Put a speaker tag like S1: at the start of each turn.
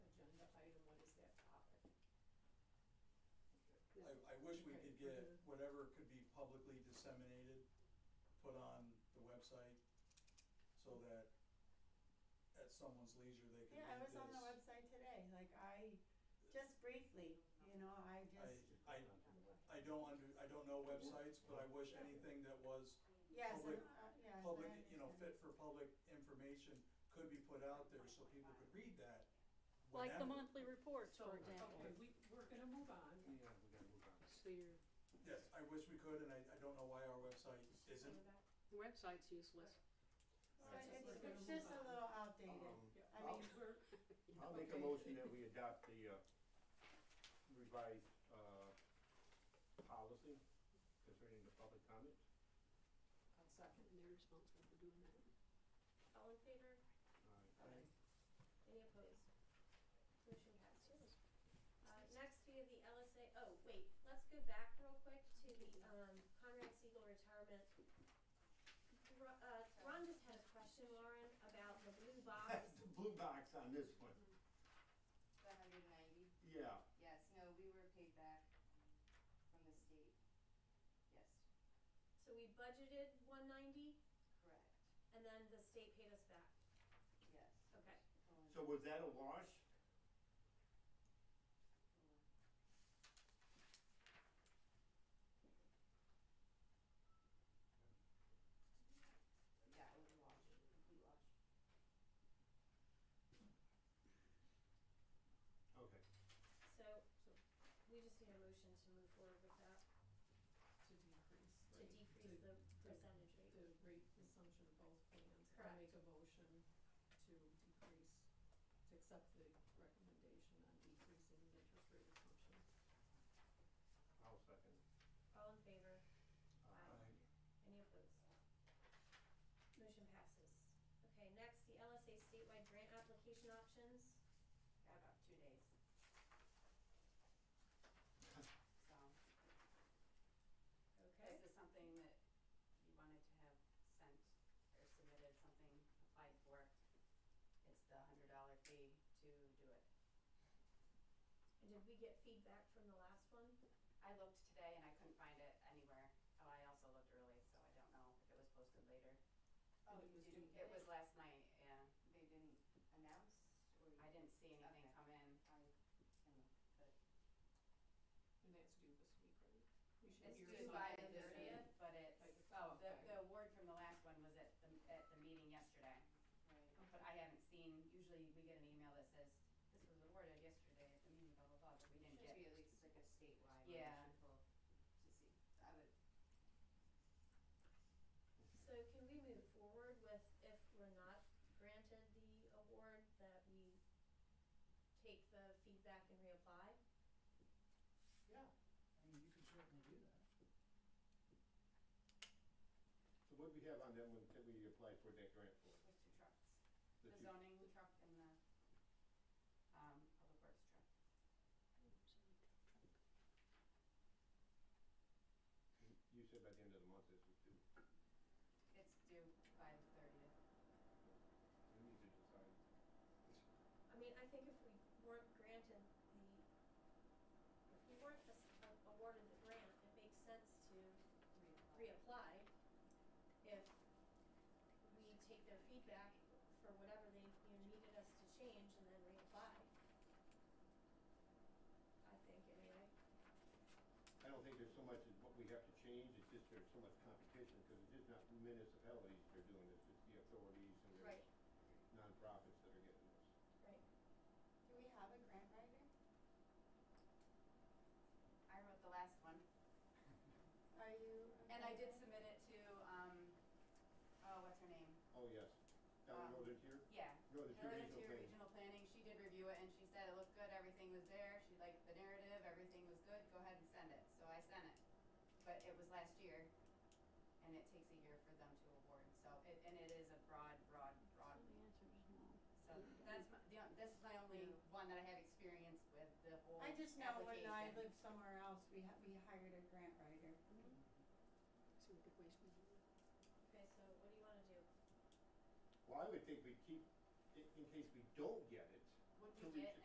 S1: wish we
S2: Okay.
S1: could get
S2: Mm-hmm.
S1: whatever could be publicly disseminated, put on the website, so that at someone's leisure, they can read this.
S2: Yeah, I was on the website today, like I, just briefly, you know, I just,
S1: I, I, I don't under, I don't know websites, but I wish anything that was
S2: yes, and,
S1: public-
S2: uh, yes, I
S1: public, you know,
S2: understand.
S1: fit for public information could be put out there so people could read that
S3: Like the
S1: whenever.
S3: monthly reports,
S4: So,
S3: for example.
S4: okay, we, we're gonna move on.
S5: Yeah, we gotta move on.
S3: So your
S1: Yes, I wish we could, and I, I don't know why our website isn't.
S3: website's useless.
S2: So it's, it's just a little outdated,
S5: Um,
S4: Yeah,
S2: I mean,
S4: we're,
S5: I'll make a motion that we adopt the uh, revised uh, policy concerning the public comment.
S4: I'll second.
S3: And they're responsible for doing that.
S6: All in favor?
S5: Uh,
S1: I-
S6: Any opposed? Motion passes. Uh, next, we have the LSA, oh, wait, let's go back real quick to the, um, Conrad Siegel retirement. Ro- uh, Ron just had a question, Lauren, about the blue
S5: That's
S6: box.
S5: the blue box on this one.
S7: The hundred and ninety,
S5: Yeah,
S7: yes, no, we were paid back from the state, yes,
S6: So we budgeted one ninety,
S7: correct,
S6: and then the state paid us back.
S7: yes.
S6: Okay.
S7: Hold on,
S5: so was that a wash?
S7: hold on. Yeah, it was a wash, complete wash.
S5: Okay.
S6: So, we just need a motion to move forward with that,
S4: To decrease.
S6: to decrease the percentage rate.
S4: The rate assumption of both plans. I make a motion to decrease, to accept the recommendation on decreasing the interest rate assumption.
S5: I'll second.
S6: All in favor?
S5: Aye.
S6: Any opposed? Motion passes. Okay, next, the LSA statewide grant application options.
S7: Got about two days. So,
S6: Okay.
S7: this is something that you wanted to have sent or submitted, something applied for. It's the hundred dollar fee to do it.
S6: And did we get feedback from the last one?
S7: I looked today and I couldn't find it anywhere. Oh, I also looked early, so I don't know if it was posted later.
S4: Oh, it was due
S7: It
S4: today?
S7: was last night, yeah.
S8: They didn't announce or?
S7: I didn't see anything
S8: Okay.
S7: come in.
S8: I can look, but
S4: And that's due this week, right? We should
S7: It's
S4: hear
S7: due by the
S4: something this week.
S7: thirtieth, but
S4: Like
S7: it's,
S4: the
S7: oh, the,
S4: following.
S7: the award from the last one was at the, at the meeting yesterday.
S8: right,
S7: But I haven't seen, usually we get an email that says, this was awarded yesterday at the meeting, blah, blah, blah, but we didn't
S8: should be at
S7: get.
S8: least like a statewide, we
S7: Yeah.
S8: should pull to see, I would,
S6: So can we move forward with if we're not granted the award, that we take the feedback and reapply?
S9: Yeah, I mean, you can certainly do that.
S5: So what we have on that one, that we applied for that grant
S7: Those two trucks,
S5: for?
S7: the zoning truck and the, um, public works truck.
S5: You said by the end of the month is due.
S7: It's due by the thirtieth.
S5: We need to decide.
S6: I mean, I think if we weren't granted the, if we weren't as- uh, awarded the grant, it makes sense to reapply if we take their feedback for whatever they, you know, needed us to change and then reapply. I think, anyway.
S5: I don't think there's so much as what we have to change, it's just there's so much competition, because it's just not municipalities that are doing this, it's the authorities and the
S6: Right,
S5: nonprofits that are getting this.
S6: right.
S8: do we have a grant writer?
S7: I wrote the last one,
S8: Are you?
S7: and I did submit it to, um, oh, what's her name?
S5: Oh, yes. Down
S7: Um,
S5: the road in here? No,
S7: Yeah.
S5: the two
S7: Northern
S5: regional planning.
S7: Tier Regional Planning, she did review it, and she said it looked good, everything was there, she liked the narrative, everything was good, go ahead and send it, so I sent it. But it was last year, and it takes a year for them to award, so, it- and it is a broad, broad, broad,
S3: So the
S7: so
S3: answer is no.
S7: that's my, the on- this is my only
S2: Yeah.
S7: one that I have experience with, the whole
S2: I just know when I
S7: application.
S2: lived somewhere else, we ha- we hired a grant writer.
S3: So we could waste money.
S6: Okay, so what do you wanna do?
S5: Well, I would think we keep, in, in case we don't get it.
S7: Would we
S5: till we-
S7: get